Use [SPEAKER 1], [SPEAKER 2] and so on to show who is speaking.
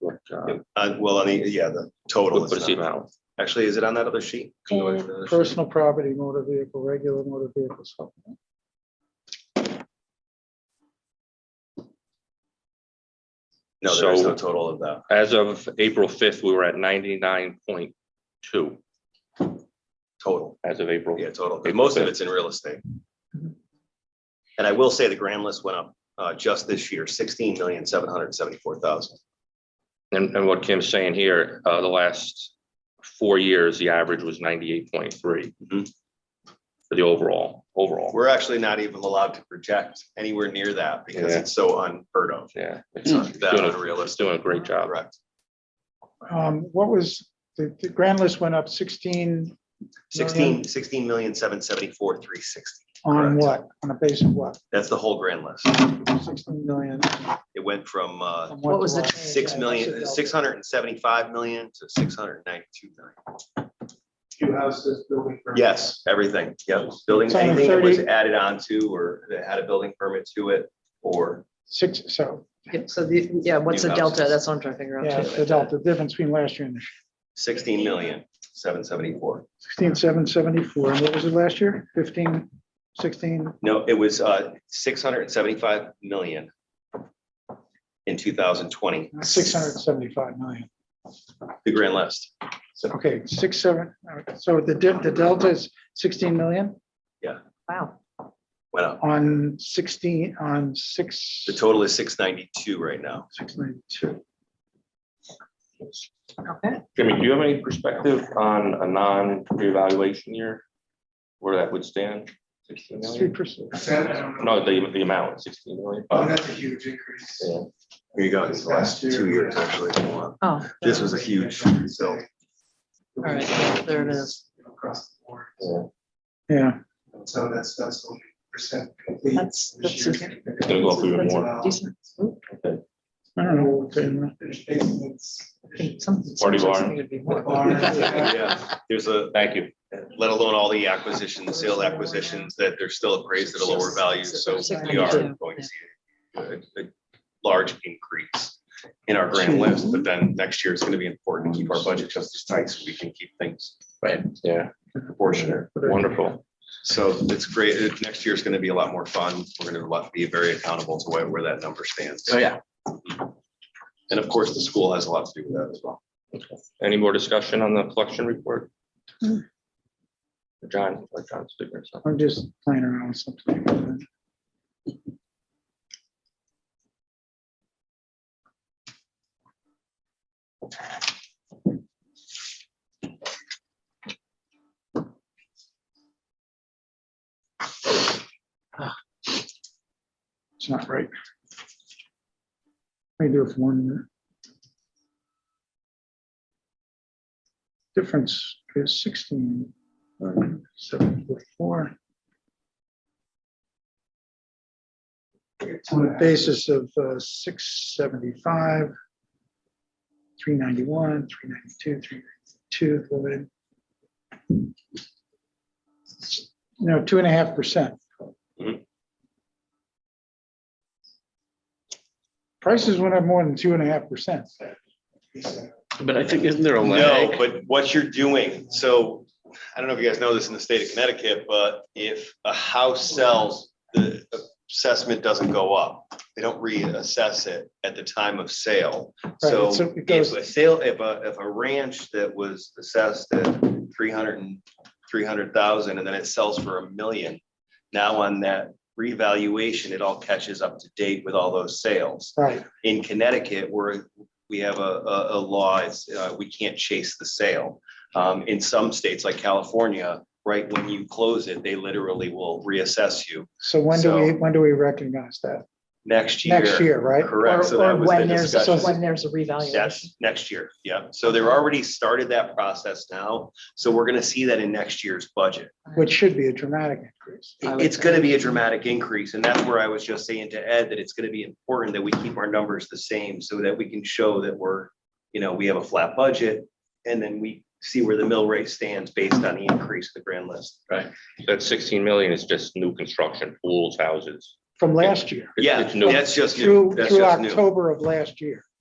[SPEAKER 1] what, uh,
[SPEAKER 2] Uh, well, on the, yeah, the total
[SPEAKER 1] what
[SPEAKER 2] is
[SPEAKER 1] was the
[SPEAKER 2] not,
[SPEAKER 1] amount?
[SPEAKER 2] actually, is it on that other sheet? Can you go back to the other sheet?
[SPEAKER 3] Personal property, motor vehicle, regular motor vehicle supplement.
[SPEAKER 2] No, there is
[SPEAKER 1] So-
[SPEAKER 2] no total of that.
[SPEAKER 1] As of April fifth, we were at ninety-nine point two
[SPEAKER 2] Total,
[SPEAKER 1] as of April.
[SPEAKER 2] yeah, total. 'cause Most of it's in real estate. And I will say the grand list went up, uh, just this year, sixteen million, seven hundred and seventy-four thousand.
[SPEAKER 1] And, and what Kim's saying here, uh, the last four years, the average was ninety-eight point three.
[SPEAKER 2] Mhm.
[SPEAKER 1] For the overall, overall,
[SPEAKER 2] We're actually not even allowed to project anywhere near that because
[SPEAKER 1] Yeah. Hmm.
[SPEAKER 2] it's so unheard of.
[SPEAKER 1] yeah. It's
[SPEAKER 2] It's
[SPEAKER 1] doing
[SPEAKER 2] that
[SPEAKER 1] a- it's
[SPEAKER 2] unrealistic,
[SPEAKER 1] doing a great job.
[SPEAKER 2] correct?
[SPEAKER 3] Um, what was, the, the grand list went up sixteen
[SPEAKER 2] Sixteen, sixteen million, seven seventy-four, three sixty.
[SPEAKER 3] on
[SPEAKER 2] Correct.
[SPEAKER 3] what? On a base of what?
[SPEAKER 2] That's the whole grand list.
[SPEAKER 3] Sixteen million?
[SPEAKER 2] It went from, uh,
[SPEAKER 3] from
[SPEAKER 4] What was
[SPEAKER 3] to
[SPEAKER 4] the
[SPEAKER 3] what?
[SPEAKER 4] change?
[SPEAKER 2] six million, six hundred and seventy-five million to six hundred and ninety-two million.
[SPEAKER 5] Two houses, building. permit.
[SPEAKER 2] Yes, everything, yep. Building,
[SPEAKER 3] It's on
[SPEAKER 2] anything that was
[SPEAKER 3] 30.
[SPEAKER 2] added on to or that had a building permit to it or
[SPEAKER 3] Six, so,
[SPEAKER 4] Yeah, So the, yeah, what's the
[SPEAKER 2] New
[SPEAKER 4] delta?
[SPEAKER 2] houses.
[SPEAKER 4] That's what I'm trying to figure
[SPEAKER 3] yeah,
[SPEAKER 4] out
[SPEAKER 3] the
[SPEAKER 4] too.
[SPEAKER 3] delta, difference between last year and this year,
[SPEAKER 2] sixteen million, seven seventy-four.
[SPEAKER 3] sixteen, seven, seventy-four, and what was it last year? Fifteen, sixteen,
[SPEAKER 2] No, it was uh six hundred and seventy-five million in two thousand twenty.
[SPEAKER 3] six hundred and seventy-five million.
[SPEAKER 2] The grand list,
[SPEAKER 3] So, okay, six, seven, all right, so the, di- the delta is sixteen million
[SPEAKER 4] Wow.
[SPEAKER 2] went up.
[SPEAKER 3] on sixteen, on six.
[SPEAKER 2] The total is six ninety-two right now.
[SPEAKER 3] Six ninety-two.
[SPEAKER 4] Okay.
[SPEAKER 1] Jimmy, do you have any perspective on a non-reevaluation year? Where that would stand? 16
[SPEAKER 3] It's three
[SPEAKER 1] million?
[SPEAKER 3] percent.
[SPEAKER 5] That, I don't know.
[SPEAKER 1] No, the, the amount, sixteen million.
[SPEAKER 5] Oh, that's a huge increase.
[SPEAKER 1] Yeah.
[SPEAKER 2] Here you go,
[SPEAKER 5] This last year, yeah.
[SPEAKER 4] Oh,
[SPEAKER 2] This was a huge result.
[SPEAKER 4] all right, there it is.
[SPEAKER 5] Across the board.
[SPEAKER 3] Yeah,
[SPEAKER 5] So that's, that's only percent complete.
[SPEAKER 4] That's-
[SPEAKER 5] This
[SPEAKER 4] that's
[SPEAKER 5] year's-
[SPEAKER 1] gonna go up even more.
[SPEAKER 4] Decent. Ooh,
[SPEAKER 3] I don't know. what the-
[SPEAKER 5] Finished basements.
[SPEAKER 4] think Something.
[SPEAKER 1] Party
[SPEAKER 4] seems like
[SPEAKER 1] barn.
[SPEAKER 4] something would be more.
[SPEAKER 5] Barn, yeah.
[SPEAKER 2] Yeah, there's a,
[SPEAKER 1] Thank you.
[SPEAKER 2] let alone all the acquisitions, sale acquisitions, that they're still appraised at a lower value, so we are going to see a, a large increase in our grand list, but then next year it's gonna be important to keep our budget just as tight so we can keep things
[SPEAKER 1] Yeah,
[SPEAKER 2] proportionate.
[SPEAKER 1] wonderful.
[SPEAKER 2] So it's great, It- next year is gonna be a lot more fun, we're gonna lot- be very accountable to where, where that number stands. Mm-hmm.
[SPEAKER 1] yeah.
[SPEAKER 2] And of course, the school has a lot to do with that as well.
[SPEAKER 1] Any more discussion on the collection report? John, let John speak or something.
[SPEAKER 3] I'm just playing around with something. It's not right. Let me do it for one minute. Difference is sixteen. uh, Seven foot four, on a basis of uh, six seventy-five, three ninety-one, three ninety-two, three ninety-two, divided. You know, two and a half percent.
[SPEAKER 2] Mhm.
[SPEAKER 3] Prices went up more than two and a half percent.
[SPEAKER 6] But I think, isn't there a
[SPEAKER 2] No,
[SPEAKER 6] lag?
[SPEAKER 2] but what you're doing, so, I don't know if you guys know this in the state of Connecticut, but if a house sells, the assessment doesn't go up. They don't reassess it at the time of sale. So
[SPEAKER 3] Right, so it
[SPEAKER 2] if
[SPEAKER 3] goes-
[SPEAKER 2] a sale, if a, if a ranch that was assessed at three hundred and, three hundred thousand, and then it sells for a million, now on that revaluation, it all catches up to date with all those sales
[SPEAKER 3] Right,
[SPEAKER 2] in Connecticut, we're, we have a, a, a law, it's, uh, we can't chase the sale. Um, in some states like California, right, when you close it, they literally will reassess you
[SPEAKER 3] so when do we,
[SPEAKER 2] So-
[SPEAKER 3] when do we recognize that?
[SPEAKER 2] next year.
[SPEAKER 3] Next year, right?
[SPEAKER 2] Correct, so
[SPEAKER 4] Or- or
[SPEAKER 2] that was the
[SPEAKER 4] when there's-
[SPEAKER 2] discussion.
[SPEAKER 4] When there's a revaluation.
[SPEAKER 2] That's next year, yeah, so they're already started that process now, so we're gonna see that in next year's budget.
[SPEAKER 3] Which should be a dramatic increase.
[SPEAKER 4] I would
[SPEAKER 2] It's gonna be a dramatic increase, and that's where I was just saying to Ed that it's gonna be important that we keep our numbers the same so that we can show that we're, you know, we have a flat budget. And then we see where the mill rate stands based on the increase of the grand list. Right.
[SPEAKER 1] That sixteen million is just new construction, pools, houses.
[SPEAKER 3] From last year,
[SPEAKER 1] It's-
[SPEAKER 2] Yeah,
[SPEAKER 1] it's new.
[SPEAKER 2] that's just new.
[SPEAKER 3] through,
[SPEAKER 2] That's
[SPEAKER 3] through
[SPEAKER 2] just new.
[SPEAKER 3] October of last year.